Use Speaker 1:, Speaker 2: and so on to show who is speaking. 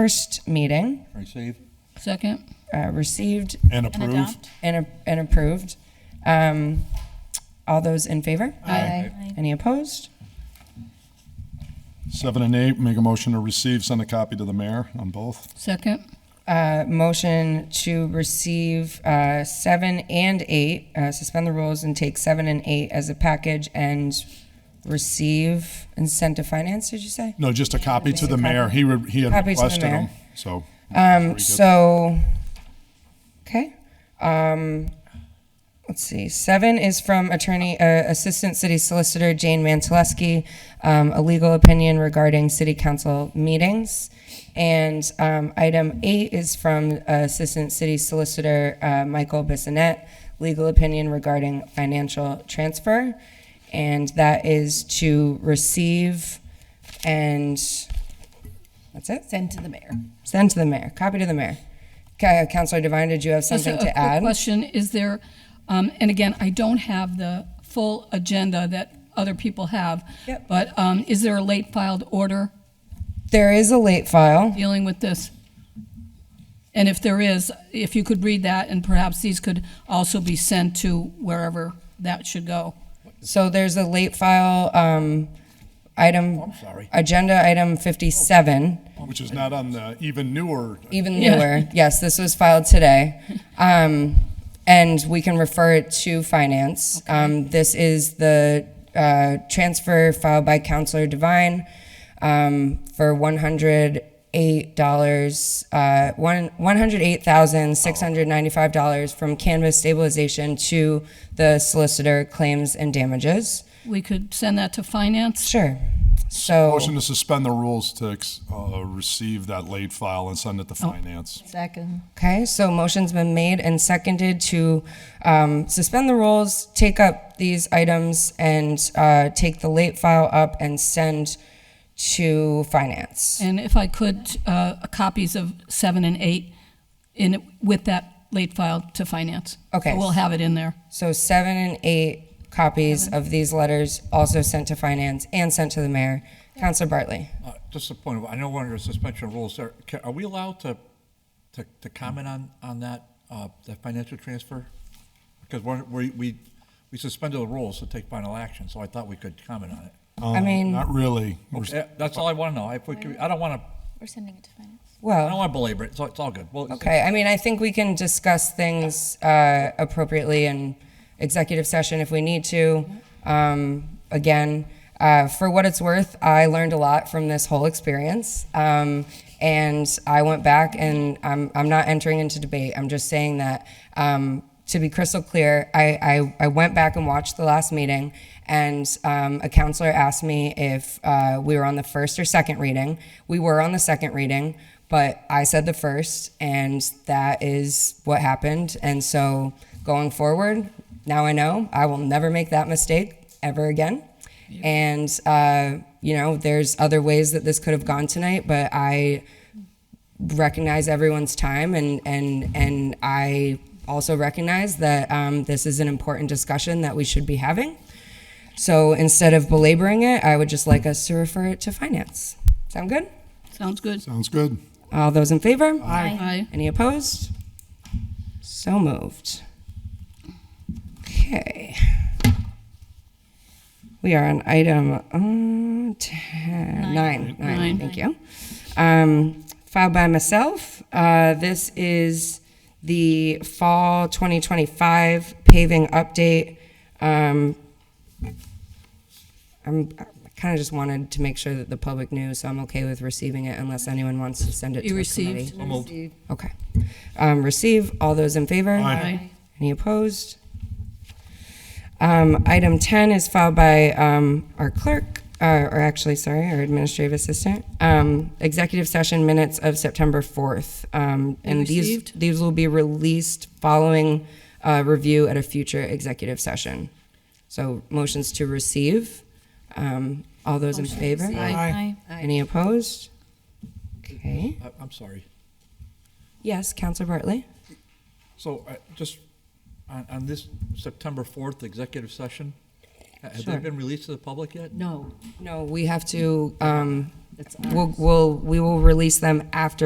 Speaker 1: first meeting,
Speaker 2: Receive
Speaker 3: Second.
Speaker 1: uh, received
Speaker 2: and approve.
Speaker 3: adopt.
Speaker 1: and, a- and approved. Um, all those in favor? Any opposed?
Speaker 2: Seven and eight, make a motion to receive, send a copy to the mayor on both.
Speaker 3: Second.
Speaker 1: Uh, motion to receive, uh, seven and eight, uh, suspend the rules and take seven and eight as a package and receive and send to finance, did you say?
Speaker 2: No, just a copy to the mayor. He, re- he had
Speaker 1: Copy to the
Speaker 2: requested
Speaker 1: mayor.
Speaker 2: them, so.
Speaker 1: Um, so, okay. Um, let's see. Seven is from attorney, uh, assistant city solicitor Jane Mantaleski, um, a legal opinion regarding city council meetings. And, um, item eight is from uh, assistant city solicitor, uh, Michael Bissonette, legal opinion regarding financial transfer. And that is to receive and, that's it?
Speaker 4: Send to the mayor.
Speaker 1: Send to the mayor, copy to the mayor. Ca- Counselor Devine, did you have
Speaker 3: Just a-
Speaker 1: something
Speaker 3: a
Speaker 1: to
Speaker 3: quick
Speaker 1: add?
Speaker 3: Question, is there, um, and again, I don't have the full agenda that other people have.
Speaker 1: Yep.
Speaker 3: But, um, is there a late filed order
Speaker 1: There is a late file.
Speaker 3: dealing with this? And if there is, if you could read that and perhaps these could also be sent to wherever that should go.
Speaker 1: So there's a late file, um, item.
Speaker 5: sorry.
Speaker 1: Agenda item fifty-seven,
Speaker 2: Which is not on the even newer,
Speaker 1: even
Speaker 3: Yeah.
Speaker 1: newer. Yes, this was filed today. Um, and we can refer it to finance. Um, this is the, uh, transfer filed by Counselor Devine, um, for one hundred eight dollars, uh, one, one hundred eight thousand, six hundred ninety-five dollars from Canvas stabilization to the solicitor claims and damages.
Speaker 3: We could send that to finance?
Speaker 1: Sure. So,
Speaker 2: motion to suspend the rules to, ex- uh, receive that late file and send it to
Speaker 1: Oh.
Speaker 2: finance.
Speaker 4: Second.
Speaker 1: okay, so motion's been made and seconded to, um, suspend the rules, take up these items and, uh, take the late file up and send to finance.
Speaker 3: And if I could, uh, copies of seven and eight in, with that late file to finance.
Speaker 1: Okay.
Speaker 3: We'll have it in there.
Speaker 1: So seven and eight copies of these letters also sent to finance and sent to the mayor. Counselor Bartley?
Speaker 5: Uh, Just a point, of- I know we're under suspension of rules, are, ca- are we allowed to, to, to comment on, on that, uh, that financial transfer? Because we're, we, we we suspended the rules to take final action, so I thought we could comment on it.
Speaker 1: I mean,
Speaker 2: Uh, Not really. We're-
Speaker 5: Yeah, That's all I want to know, if we could, I don't want to,
Speaker 6: We're sending it to finance.
Speaker 5: I don't
Speaker 1: well,
Speaker 5: want to belabor it, so it's all good. Well,
Speaker 1: okay, I mean, I think we can discuss things uh, appropriately in executive session if we need to. Um, Again, uh, for what it's worth, I learned a lot from this whole experience. Um, And I went back and I'm, I'm not entering into debate, I'm just saying that um, to be crystal clear, I, I, I went back and watched the last meeting, and um, a counselor asked me if uh, we were on the first or second reading. We were on the second reading, but I said the first, and that is what happened. And so going forward, now I know I will never make that mistake ever again. And, uh, you know, there's other ways that this could have gone tonight, but I recognize everyone's time and and and I also recognize that um, this is an important discussion that we should be having. So instead of belaboring it, I would just like us to refer it to finance. Sound good?
Speaker 3: Sounds good?
Speaker 2: Sounds good.
Speaker 1: All those in favor?
Speaker 3: Aye.
Speaker 1: Any opposed? So moved. Okay. We are on item uh, ten- nine. Nine,
Speaker 3: Nine.
Speaker 1: thank you. Um, Filed by myself. Uh, This is the fall 2025 paving update. Um, I'm, I kind of just wanted to make sure that the public knew, so I'm okay with receiving it unless anyone wants to send it to
Speaker 3: You
Speaker 1: a
Speaker 3: received?
Speaker 1: committee. Okay. Um, receive, all those in favor?
Speaker 3: Aye.
Speaker 1: Any opposed? Um, item ten is filed by, um, our clerk, uh, or actually, sorry, our administrative assistant. Um, executive session minutes of September fourth. Um, and these,
Speaker 3: received?
Speaker 1: these will be released following, uh, review at a future executive session. So motions to receive, um, all those in favor?
Speaker 6: Aye.
Speaker 1: Any opposed? Okay.
Speaker 5: I- I'm sorry.
Speaker 1: Yes, Counselor Bartley?
Speaker 5: So uh, just on, on this September 4th executive session, Have they
Speaker 1: Sure.
Speaker 5: been released to the public yet?
Speaker 4: No,
Speaker 1: No, we have to, um,
Speaker 4: it's
Speaker 1: we'll, we'll, we will release them after